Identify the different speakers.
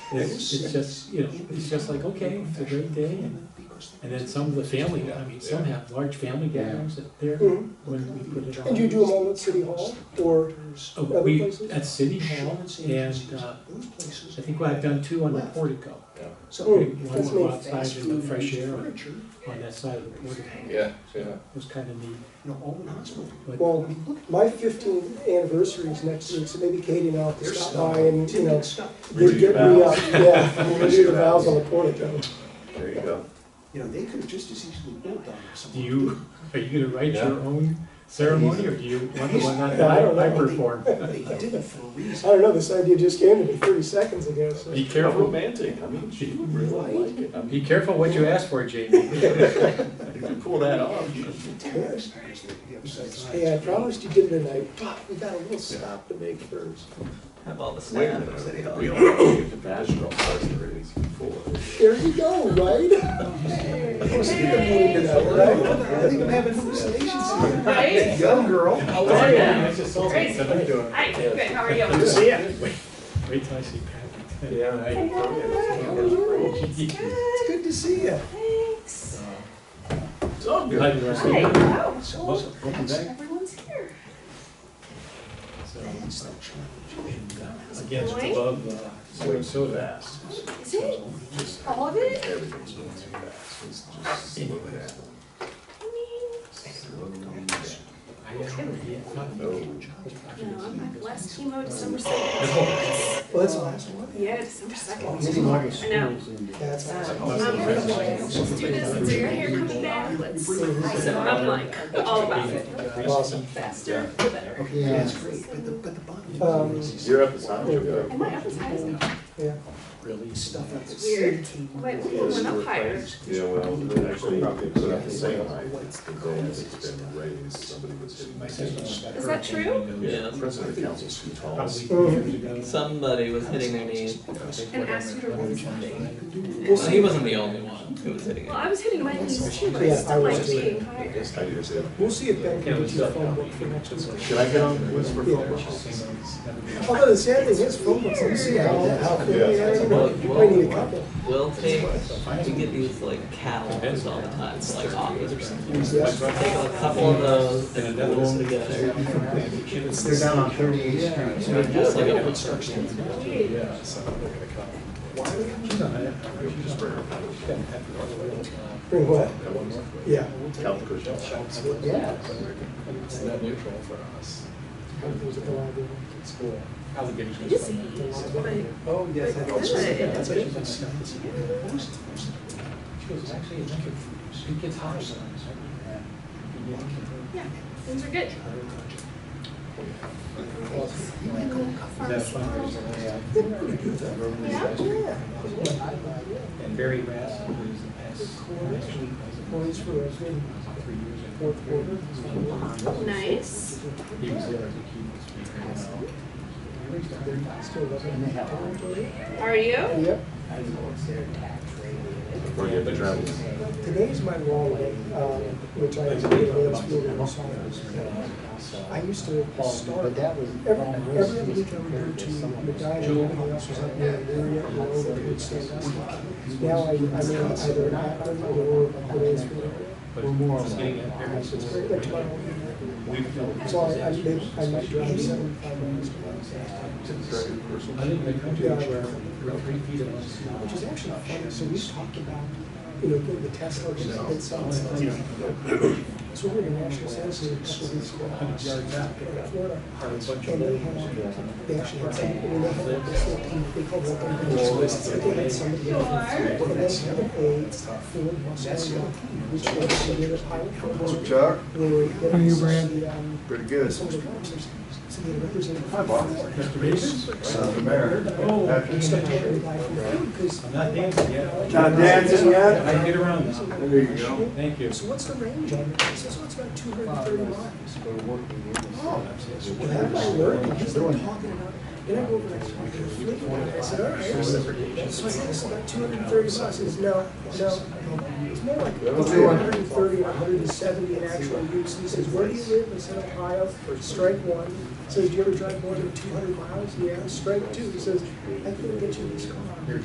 Speaker 1: It's, it's just, you know, it's just like, okay, it's a great day, and, and then some of the family, I mean, some have large family gatherings that there,
Speaker 2: Mhm.
Speaker 1: when we put it on.
Speaker 2: And you do them all at City Hall, or,
Speaker 1: Uh,
Speaker 2: other
Speaker 1: we,
Speaker 2: places?
Speaker 1: at City Hall, and, uh, I think I've done two on the portico,
Speaker 2: Mm,
Speaker 1: one
Speaker 2: that's
Speaker 1: go
Speaker 2: neat.
Speaker 1: outside in the fresh air on- on that side of the portico.
Speaker 3: Yeah, yeah.
Speaker 1: It was kind of neat, but,
Speaker 2: Well, my fifteenth anniversary is next week, so maybe Katie and I'll have to stop by and, you know,
Speaker 4: Renew
Speaker 2: get
Speaker 4: your
Speaker 2: get me up,
Speaker 4: vows.
Speaker 2: yeah, renew the
Speaker 4: your
Speaker 2: vows on the portico.
Speaker 4: There you go.
Speaker 5: You know, they could have just as easily built on
Speaker 1: do you, are you gonna write your own ceremony, or do you want the one that
Speaker 2: Yeah, I don't
Speaker 1: I
Speaker 2: know.
Speaker 1: perform?
Speaker 5: They did it for a
Speaker 2: I
Speaker 5: reason.
Speaker 2: don't know, this idea just came to me thirty seconds ago, so.
Speaker 1: Be
Speaker 4: How
Speaker 1: careful,
Speaker 4: romantic, I mean, she would really like it, I mean,
Speaker 1: be careful what you ask for, Jamie.
Speaker 4: you could pull that off.
Speaker 2: Hey, I promised you dinner tonight, but we got a little stop to make first.
Speaker 6: Have all the
Speaker 4: Wait a
Speaker 6: staff at City
Speaker 4: minute,
Speaker 6: Hall.
Speaker 4: we don't have to get the bachelor parties before.
Speaker 2: There you go, right?
Speaker 5: I think I'm having hallucinations here.
Speaker 7: Right?
Speaker 5: Young girl.
Speaker 2: Oh,
Speaker 7: How are you?
Speaker 1: I just told him, I said, "I'm doing
Speaker 7: Hi, good, how are you?
Speaker 1: it." See ya. Wait, wait till I see Patrick.
Speaker 4: Yeah.
Speaker 5: It's good to see you.
Speaker 7: Thanks.
Speaker 4: It's all good.
Speaker 1: Glad you were
Speaker 7: Hi,
Speaker 1: here.
Speaker 7: wow,
Speaker 4: Welcome welcome back.
Speaker 7: everyone's here.
Speaker 1: So,
Speaker 5: That's the challenge.
Speaker 1: Again, it's above uh, soy soda.
Speaker 7: Is it? All of it?
Speaker 4: Everything's going too fast, it's just slow down.
Speaker 1: I haven't yet gotten
Speaker 4: No.
Speaker 7: No, I'm my last chemo December second.
Speaker 5: Well, that's the last one.
Speaker 7: Yeah, December second.
Speaker 5: Maybe Marcus.
Speaker 7: I know.
Speaker 5: That's the last one.
Speaker 7: Um, Let's do this, it's your hair coming back, let's, so I'm like, all about it.
Speaker 2: Awesome.
Speaker 7: Faster, the better.
Speaker 5: Okay, that's great, but the, but the bottom.
Speaker 2: Um,
Speaker 5: line is-
Speaker 4: You're up as high as you go.
Speaker 7: And my upper side is
Speaker 2: Yeah.
Speaker 5: Stuff like this.
Speaker 7: weird, but we went up higher.
Speaker 4: Yeah, well, they actually probably put up the same height, and then it's been raised, somebody was hitting my head.
Speaker 7: Is that true?
Speaker 4: Yeah, the president of the council's too tall.
Speaker 6: Somebody was hitting their knee.
Speaker 7: And asked you to warn something.
Speaker 6: Well, he wasn't the only one who was hitting it.
Speaker 7: Well, I was hitting my knees too, but I
Speaker 2: Yeah, I
Speaker 7: still like
Speaker 2: was.
Speaker 7: being higher.
Speaker 4: I do too.
Speaker 2: We'll see if Ben
Speaker 1: Yeah,
Speaker 2: can
Speaker 1: it
Speaker 2: get
Speaker 1: was
Speaker 2: you a
Speaker 1: up.
Speaker 2: phone book for next week.
Speaker 4: Should I get on the whisper
Speaker 2: Yeah.
Speaker 4: phone?
Speaker 2: Although the sad thing is, phone books, you see how, how, quick they are, you know, you might need a couple.
Speaker 6: We'll take, we get these like catalogs all the time, for, like office or something.
Speaker 2: Yeah.
Speaker 6: Take a couple of those and glue them together.
Speaker 1: They're down on thirty-eighth street.
Speaker 6: So it's just like a construction.
Speaker 2: Bring what? Yeah.
Speaker 4: Count the cushions.
Speaker 2: Yeah.
Speaker 8: It's net neutral for us.
Speaker 7: It is huge, but
Speaker 5: Oh, yes.
Speaker 7: But
Speaker 5: that's-
Speaker 7: good, it
Speaker 5: that's
Speaker 7: doesn't-
Speaker 5: actually-
Speaker 7: yeah, things are good. Yeah?
Speaker 8: And Barry Rass, who's the past
Speaker 2: Always for us, maybe
Speaker 8: three years,
Speaker 2: fourth quarter.
Speaker 7: Nice.
Speaker 8: he was there as a keynote speaker.
Speaker 2: Still love
Speaker 7: Are
Speaker 2: it.
Speaker 7: you?
Speaker 2: Yep.
Speaker 4: Or you have to travel.
Speaker 2: Today's my law day, um, which I did last I used to start, every, every week I would go to Medina, and also something in the area, and over to stand up. Now I, I mean, either an Akron or Today's
Speaker 8: But it's getting up there.
Speaker 2: So it's very, like, tomorrow.
Speaker 8: We've built
Speaker 2: So I, I may- I might drive seven, five miles to Madison,
Speaker 8: I think they come to
Speaker 2: Yeah.
Speaker 8: each other, we're three feet apart.
Speaker 2: which is actually not fun. So we talked about, you know, going to Tesla, which is a good size. So we're in national sales in a couple of weeks.
Speaker 8: Hundred yards out.
Speaker 2: in Florida.
Speaker 8: Hard as bunch of
Speaker 2: And they
Speaker 8: them.
Speaker 2: had, they actually had somebody, they had like this little team, they called it like a beach list, they had somebody in it. And they had a Ford Mustang, which was a little pilot for work.
Speaker 3: Chuck,
Speaker 2: They were getting some of the, um,
Speaker 3: pretty good.
Speaker 2: some of the cars. So they had a representative.
Speaker 3: Hi, boss.
Speaker 1: Mr. Davis?
Speaker 3: Son of Mary.
Speaker 1: Oh,
Speaker 2: And so they had a guy from Ford, 'cause-
Speaker 1: I'm not dancing yet.
Speaker 3: Not dancing yet?
Speaker 1: I get around now.
Speaker 3: There you go.
Speaker 1: Thank you.
Speaker 2: So what's the range on it? He says, oh, it's about two hundred and thirty miles. Oh, And I'm like, where? And he's like talking about, and I go over and I start conflicting with it. I said, all right. So I said, it's about two hundred and thirty miles. He says, no, no. It's more like two hundred and thirty, hundred and seventy in actual use. And he says, where do you live? I said, Ohio, strike one. He Says, do you ever drive more than two hundred miles? Yeah, strike two. He says, I couldn't get you this car.